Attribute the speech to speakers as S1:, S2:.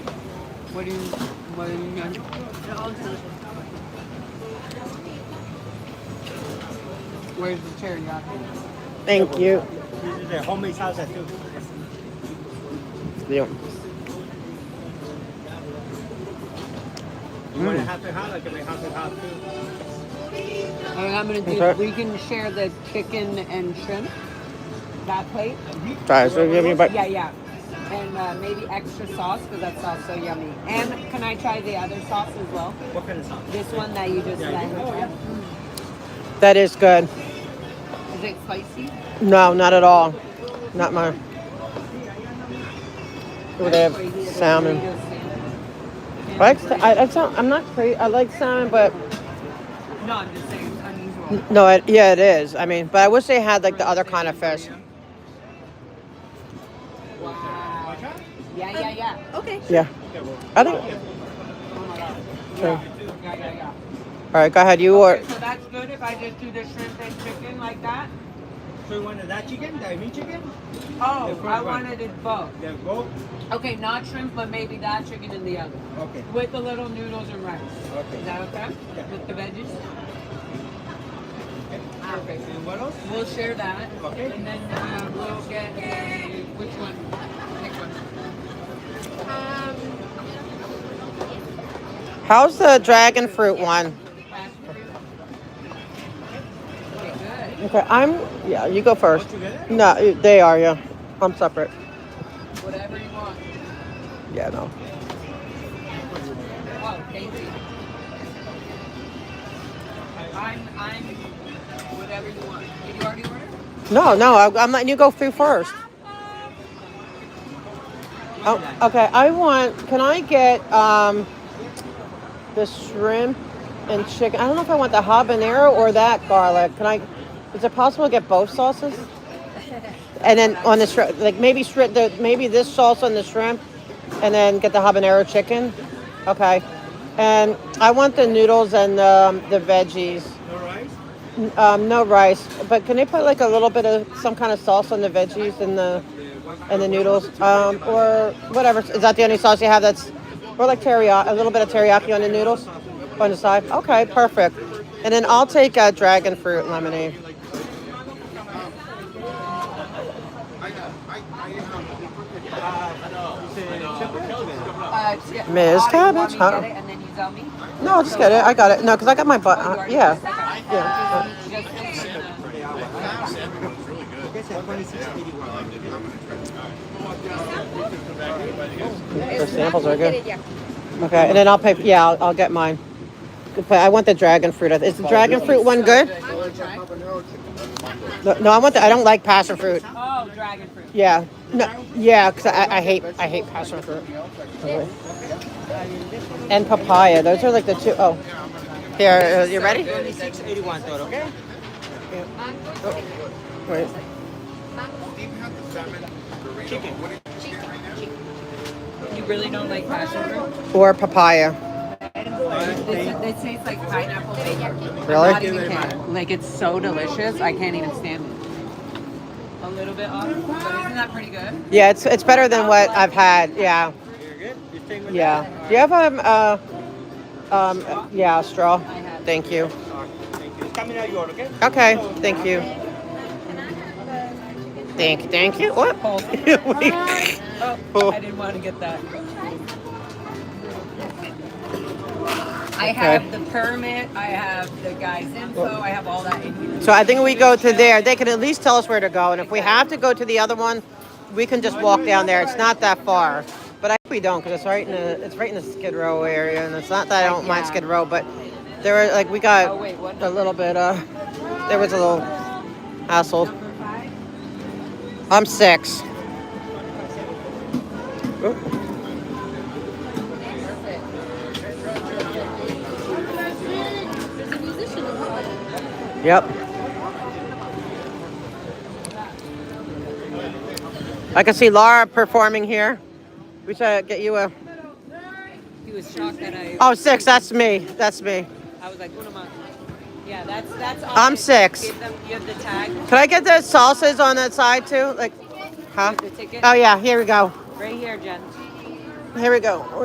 S1: What do you, what do you, Where's the teriyaki?
S2: Thank you.
S3: This is a homemade salsa too.
S2: Yep.
S3: You want it half and half? I can make half and half too.
S1: All right, I'm gonna do,
S2: Okay.
S1: we can share the chicken and shrimp, that plate.
S2: Sorry, so give me a bite.
S1: Yeah, yeah. And uh, maybe extra sauce, because that sauce so yummy. And can I try the other sauce as well?
S3: What kind of salsa?
S1: This one that you just
S3: Yeah,
S1: said.
S3: you- oh, yeah.
S2: That is good.
S1: Is it spicy?
S2: No, not at all. Not my. Oh, they have salmon. I like. sa- I, I don't- I'm not crazy. I like salmon, but
S1: No, I'm just saying it's unusual.
S2: no. It, yeah, it is. I mean, but I wish they had like the other kind of fish.
S1: Wow. Yeah, yeah, yeah.
S4: Okay.
S2: Yeah. I think.
S1: Oh my god.
S2: Sure.
S1: Yeah, yeah, yeah. yeah.
S2: All right, go ahead. You
S1: Okay,
S2: or
S1: so that's good if I just do the shrimp and chicken like that?
S3: So you wanted that chicken, that meat chicken,
S1: Oh,
S3: first
S1: I
S3: one.
S1: wanted it both.
S3: the goat?
S1: Okay, not shrimp, but maybe that chicken and the other.
S3: Okay.
S1: With the little noodles and rice.
S3: Okay.
S1: Is that okay?
S3: Yeah.
S1: With the veggies? Perfect.
S3: And what else?
S1: We'll share that.
S3: Okay.
S1: And then uh, we'll get, uh, which one? Pick one.
S2: how's the dragon fruit one?
S1: Passion fruit? Okay,
S2: Okay, I'm. Yeah, you go
S3: All
S2: first.
S3: together?
S2: No, you- they are. Yeah, I'm separate.
S1: good. Whatever you want.
S2: Yeah, no.
S1: Oh, thank you. I'm, I'm, whatever you want. Did you already order?
S2: No, no. I, I'm letting you go through first. Oh, okay. I want. Can I get um, the shrimp and chicken? I don't know if I want the habanero or that garlic. Can I? Is it possible to get both sauces? And then on the shrimp, like maybe shrimp, the, maybe this sauce on the shrimp, and then get the habanero chicken. Okay. And I want the noodles and um, the veggies.
S3: No rice?
S2: N- Um, no rice, but can they put like a little bit of some kind of sauce on the veggies and the and the noodles, um, or whatever? Is that the only sauce you have? That's or like teriyaki, a little bit of teriyaki on the noodles on the side. Okay, perfect. And then I'll take uh, dragon fruit lemonade.
S1: Uh, yeah.
S2: Miss
S1: Otto, you want me
S2: Cabbage,
S1: to
S2: huh?
S1: Get it and then you tell me.
S2: No, I'll just get it. I got it. No, because I got my butt.
S1: Oh, you
S2: Uh,
S1: already
S2: yeah,
S1: did? Okay.
S2: yeah.
S1: Just in the-
S2: The samples are
S4: Get
S2: good.
S4: it, yeah.
S2: Okay, and then I'll pay. Yeah, I'll, I'll get mine. But I want the dragon fruit. Is the dragon fruit one good? No, no, I want the. I don't like passion fruit.
S1: Oh, dragon fruit.
S2: Yeah. No, yeah, because I, I hate I hate passion fruit. And papaya. Those are like the two oh Here, uh, you ready?
S3: Twenty-six eighty-one total, okay?
S2: Wait.
S3: Chicken.
S1: You really don't like passion fruit?
S2: Or papaya.
S1: They, they taste like pineapple. I'm
S2: Really?
S1: Not even kidding. Like it's so delicious, I can't even stand it. A little bit off, but isn't that pretty good?
S2: Yeah, it's it's better than what I've had. Yeah,
S3: You're good? You staying with
S2: yeah. Do you have um uh um yeah a straw? Thank you.
S3: that? All right, Thank you. It's coming out your, okay?
S2: Okay, thank you. Thank thank you. What?
S1: Cold.
S2: Wait.
S1: Oh, I didn't want to get that. I have the permit, I have the guy's info, I have all that in here.
S2: So I think we go to there. They can at least tell us where to go, and if we have to go to the other one, we can just walk down there. It's not that far, but I think we don't because it's right in the it's right in the Skid Row area, and it's not that I don't mind Skid Row, but there were like we got
S1: Oh, wait, what
S2: a little bit. Uh, there was a little hassle. I'm six. Oop.
S4: There's a musician over there.
S2: Yep. I can see Laura performing here. We should get you a.
S1: He was shocked that I,
S2: Oh, six. That's me. That's me.
S1: I was like, what am I? Yeah, that's, that's. all
S2: I'm
S1: it-
S2: six.
S1: Give them, give the tag,
S2: Can I get the salsas on that side too? Like, huh?
S1: the ticket,
S2: Oh yeah. Here we go.
S1: right here, Jen.
S2: Here we go.